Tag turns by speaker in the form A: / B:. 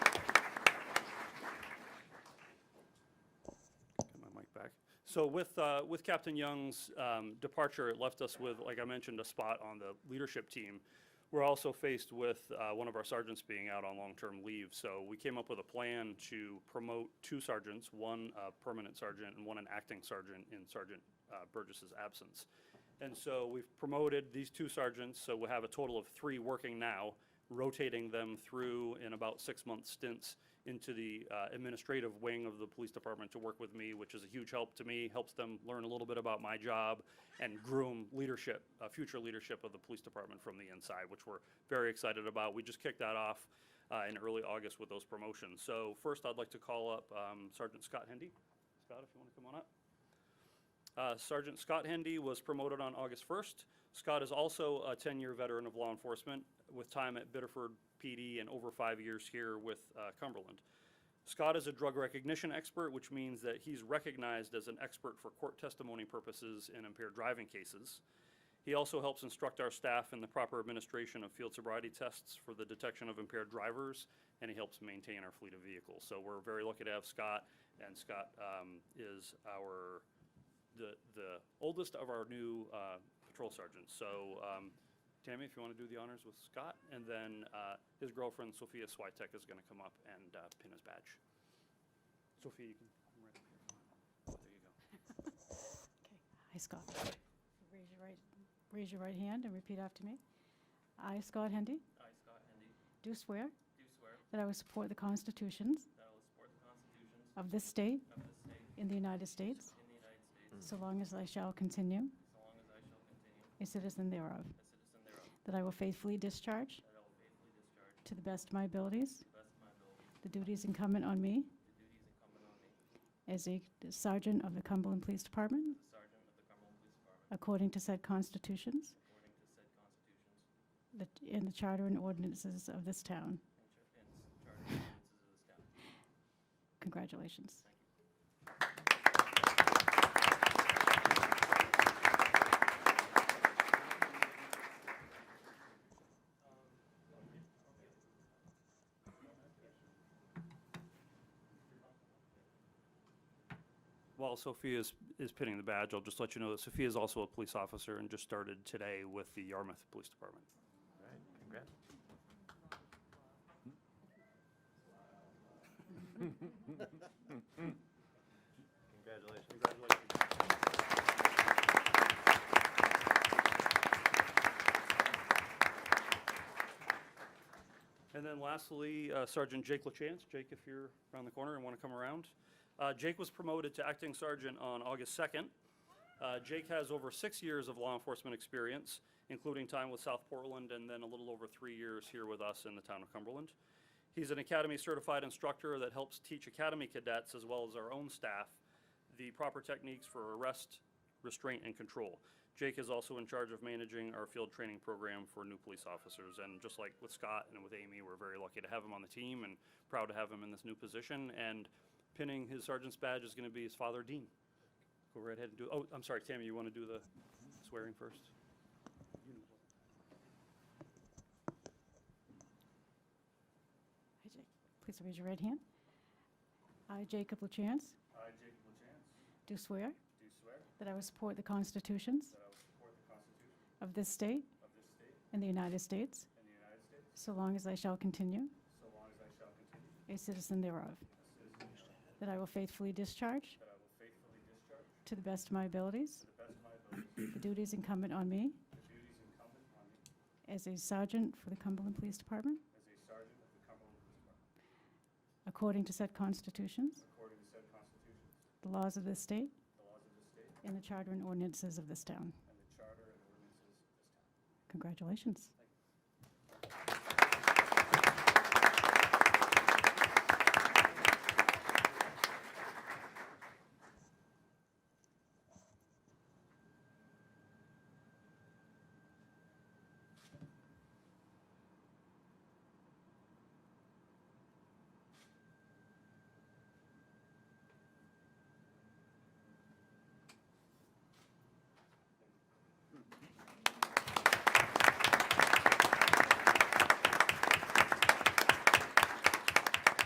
A: So with, uh, with Captain Young's um, departure, it left us with, like I mentioned, a spot on the leadership team. We're also faced with uh, one of our sergeants being out on long-term leave. So we came up with a plan to promote two sergeants, one uh, permanent sergeant and one an acting sergeant in Sergeant uh, Burgess's absence. And so we've promoted these two sergeants, so we'll have a total of three working now, rotating them through in about six-month stints into the uh, administrative wing of the police department to work with me, which is a huge help to me, helps them learn a little bit about my job and groom leadership, uh, future leadership of the police department from the inside, which we're very excited about. We just kicked that off uh, in early August with those promotions. So first, I'd like to call up um, Sergeant Scott Hendy. Scott, if you want to come on up. Uh, Sergeant Scott Hendy was promoted on August 1st. Scott is also a 10-year veteran of law enforcement with time at Biddeford PD and over five years here with uh, Cumberland. Scott is a drug recognition expert, which means that he's recognized as an expert for court testimony purposes in impaired driving cases. He also helps instruct our staff in the proper administration of field sobriety tests for the detection of impaired drivers, and he helps maintain our fleet of vehicles. So we're very lucky to have Scott, and Scott um, is our the, the oldest of our new uh, patrol sergeants. So um, Tammy, if you want to do the honors with Scott, and then uh, his girlfriend Sophia Switek is going to come up and uh, pin his badge. Sophia, you can come right up here. There you go.
B: Okay, I, Scott. Raise your right, raise your right hand and repeat after me. I, Scott Hendy,
C: I, Scott Hendy,
B: do swear
C: do swear
B: that I will support the constitutions
C: that I will support the constitutions
B: of this state
C: of this state
B: in the United States,
C: in the United States,
B: so long as I shall continue
C: so long as I shall
B: a
C: continue
B: citizen thereof,
C: a citizen thereof,
B: that I will faithfully discharge,
C: that I will faithfully discharge to
B: to the best of my abilities,
C: the best of my ability
B: the duties incumbent on me
C: the duties incumbent on me
B: as a sergeant of the Cumberland Police Department,
C: as a sergeant of the Cumberland Police Department
B: according to said constitutions
C: according to said constitutions
B: that- and the charter and ordinances of this town.
C: and char- and charter and ordinances of this town.
B: Congratulations.
C: Thank you.
A: While Sophia is, is pinning the badge, I'll just let you know that Sophia is also a police officer and just started today with the Yarmouth Police Department.
D: All right, congrats. Congratulations.
A: And then lastly, uh, Sergeant Jake LaChance. Jake, if you're around the corner and want to come around. Uh, Jake was promoted to acting sergeant on August 2nd. Uh, Jake has over six years of law enforcement experience, including time with South Portland and then a little over three years here with us in the town of Cumberland. He's an academy certified instructor that helps teach academy cadets as well as our own staff the proper techniques for arrest, restraint, and control. Jake is also in charge of managing our field training program for new police officers. And just like with Scott and with Amy, we're very lucky to have him on the team and proud to have him in this new position. And pinning his sergeant's badge is going to be his father, Dean. Go right ahead and do, oh, I'm sorry, Tammy, you want to do the swearing first?
B: Hi, Jake. Please raise your right hand. I, Jacob LaChance,
C: I, Jacob LaChance,
B: do swear
C: do swear
B: that I will support the constitutions
C: that I will support the Constitution
B: of this state
C: of this state
B: and the United States,
C: and the United States,
B: so long as I shall continue
C: so long as I shall continue
B: a citizen thereof,
C: a citizen thereof,
B: that I will faithfully discharge,
C: that I will faithfully discharge
B: to the best of my abilities,
C: to the best of my ability
B: the duties incumbent on me
C: the duties incumbent on me
B: as a sergeant for the Cumberland Police Department,
C: as a sergeant of the Cumberland Police Department
B: according to said constitutions,
C: according to said constitutions,
B: the laws of this state,
C: the laws of the state,
B: and the charter and ordinances of this town.
C: and the charter and ordinances of this town.
B: Congratulations.